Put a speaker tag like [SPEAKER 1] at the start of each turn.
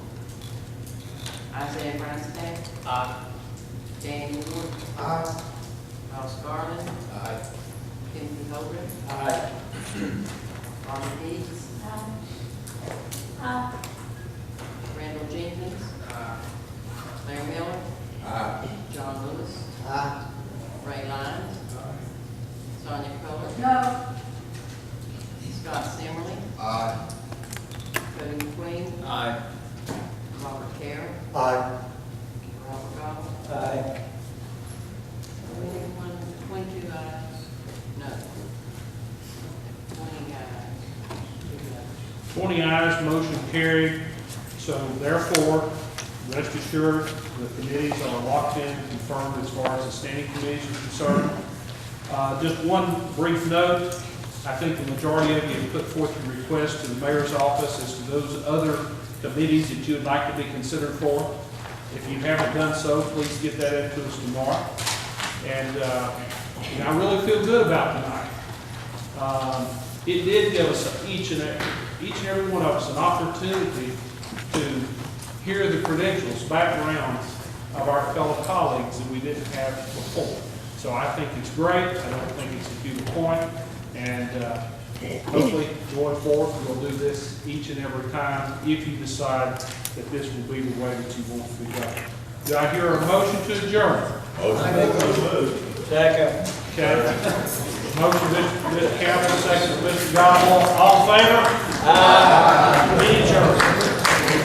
[SPEAKER 1] Isaiah Branson,
[SPEAKER 2] Aye.
[SPEAKER 1] Dan Moore,
[SPEAKER 2] Aye.
[SPEAKER 1] Ross Garland,
[SPEAKER 2] Aye.
[SPEAKER 1] Timothy Holden,
[SPEAKER 2] Aye.
[SPEAKER 1] Bonnie Dees,
[SPEAKER 3] Aye. Aye.
[SPEAKER 1] Randall Jenkins, Larry Miller,
[SPEAKER 2] Aye.
[SPEAKER 1] John Lewis,
[SPEAKER 2] Aye.
[SPEAKER 1] Ray Lyons, Sonia Coler,
[SPEAKER 3] No.
[SPEAKER 1] Scott Semley,
[SPEAKER 2] Aye.
[SPEAKER 1] Cody McQueen,
[SPEAKER 2] Aye.
[SPEAKER 1] Robert Carroll,
[SPEAKER 2] Aye.
[SPEAKER 1] Robert Goff,
[SPEAKER 2] Aye.
[SPEAKER 1] Twenty-one, twenty-two ayes, no. Twenty ayes.
[SPEAKER 4] Twenty ayes, motion carried. So therefore, rest assured, the committees are locked in, confirmed as far as the standing committees are concerned. Uh, Just one brief note, I think the majority of you have put forth your request to the mayor's office as to those other committees that you would like to be considered for. If you haven't done so, please get that into us tomorrow. And, uh, and I really feel good about tonight. Um, It did give us, each and, every- each and every one of us, an opportunity to hear the credentials, backgrounds of our fellow colleagues that we didn't have before. So I think it's great, I don't think it's a due point, and uh, hopefully going forward, we'll do this each and every time if you decide that this will be the way that you want to go. Do I hear a motion to adjourn?
[SPEAKER 2] Second.
[SPEAKER 4] Okay. Motion, Mr. Mr. Campbell, second, Mr. Godwall, all in favor? Aye. Any adjourned?